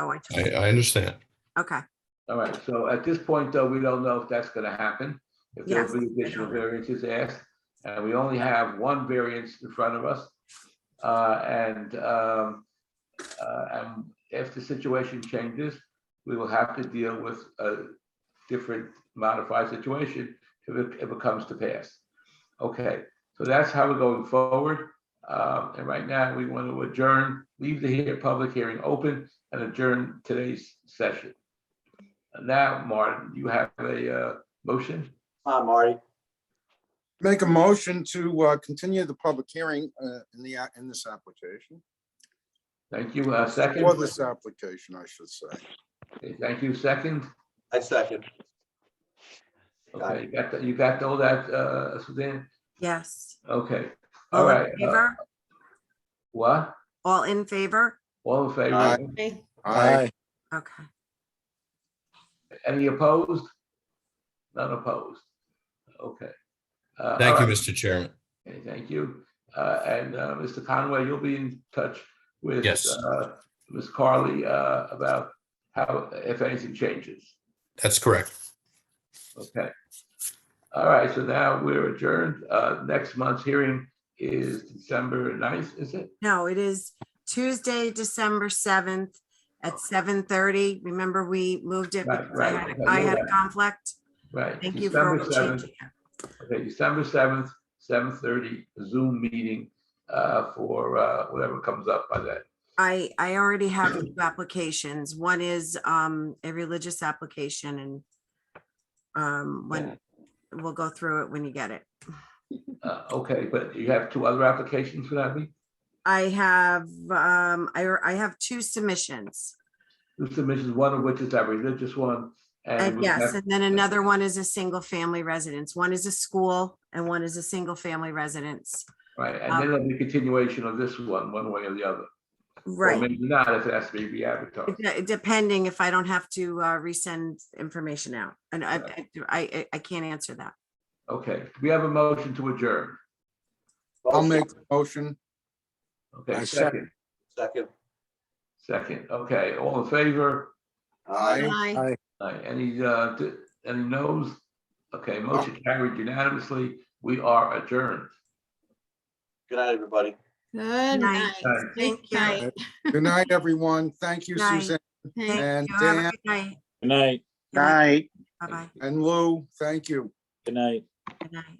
Oh, I took, I, I understand. okay, All right, so at this point, though, we don't know if that's gonna happen, if Yes. there'll be additional variances asked, and we only have one variance in front of us. Uh, and, um, uh, and if the situation changes, we will have to deal with a different modified situation if it, if it comes to pass. Okay, so that's how we're going forward. Um, and right now, we want to adjourn, leave the here, public hearing open and adjourn today's session. Now, Martin, you have a uh, motion? Hi, Marty. Make a motion to uh, continue the public hearing uh, in the, a- in this application. Thank you. Uh, Second? For this application, I should say. Thank you. Second? I second. Okay, you got, that- you got all that, uh, Suzanne? yes. Okay, all All in right. uh, favor? What? All in favor? All in favor? Aye. Okay, Aye. Okay, Any opposed? None opposed? Okay. Uh, Thank all you, right. Mr. Chairman. Okay, Thank you. Uh, And uh, Mr. Conway, you'll be in touch with Yes. uh, Ms. Carly uh, about how, if anything changes. That's correct. Okay. All right, so now we're adjourned. Uh, Next month's hearing is December 9th, is it? no, it is Tuesday, December seventh at seven thirty. Remember, we moved it Right, because I right, had, okay, I you're had a right. conflict. Right. Thank you December for 7th. changing it. Okay, December 7th, 7:30 Zoom meeting uh, for uh, whatever comes up by then. I, I already have two applications. One is, um, a religious application and um, when, we'll go through it when you get it. Uh, Okay, but you have two other applications for that week? I have, um, I, I have two submissions. Two submissions, one of which is that religious one. And we have- Uh, yes, and then another one is a single family residence. One is a school and one is a single family residence. Right, and Um, then there'll be continuation of this one, one way or the other. Or Right, maybe not if it has to be re-advertised. De- depending if I don't have to uh, resend information out. And I, I, I- I can't answer that. Okay, we have a motion to adjourn. I'll make the motion. Okay, I second, second. Second. second. Okay, all in favor? Aye. aye. Aye. Any, uh, d- any noes? Okay, motion carried unanimously. We are adjourned. Good night, everybody. Night. Good night. Night. Good Thank you. night. Good night, everyone. Thank you, Night. Suzanne Thank Thank and you. Have a Dan good night. Good night, Good Night. night. Bye-bye. and Lou. Thank you. good night. Good night.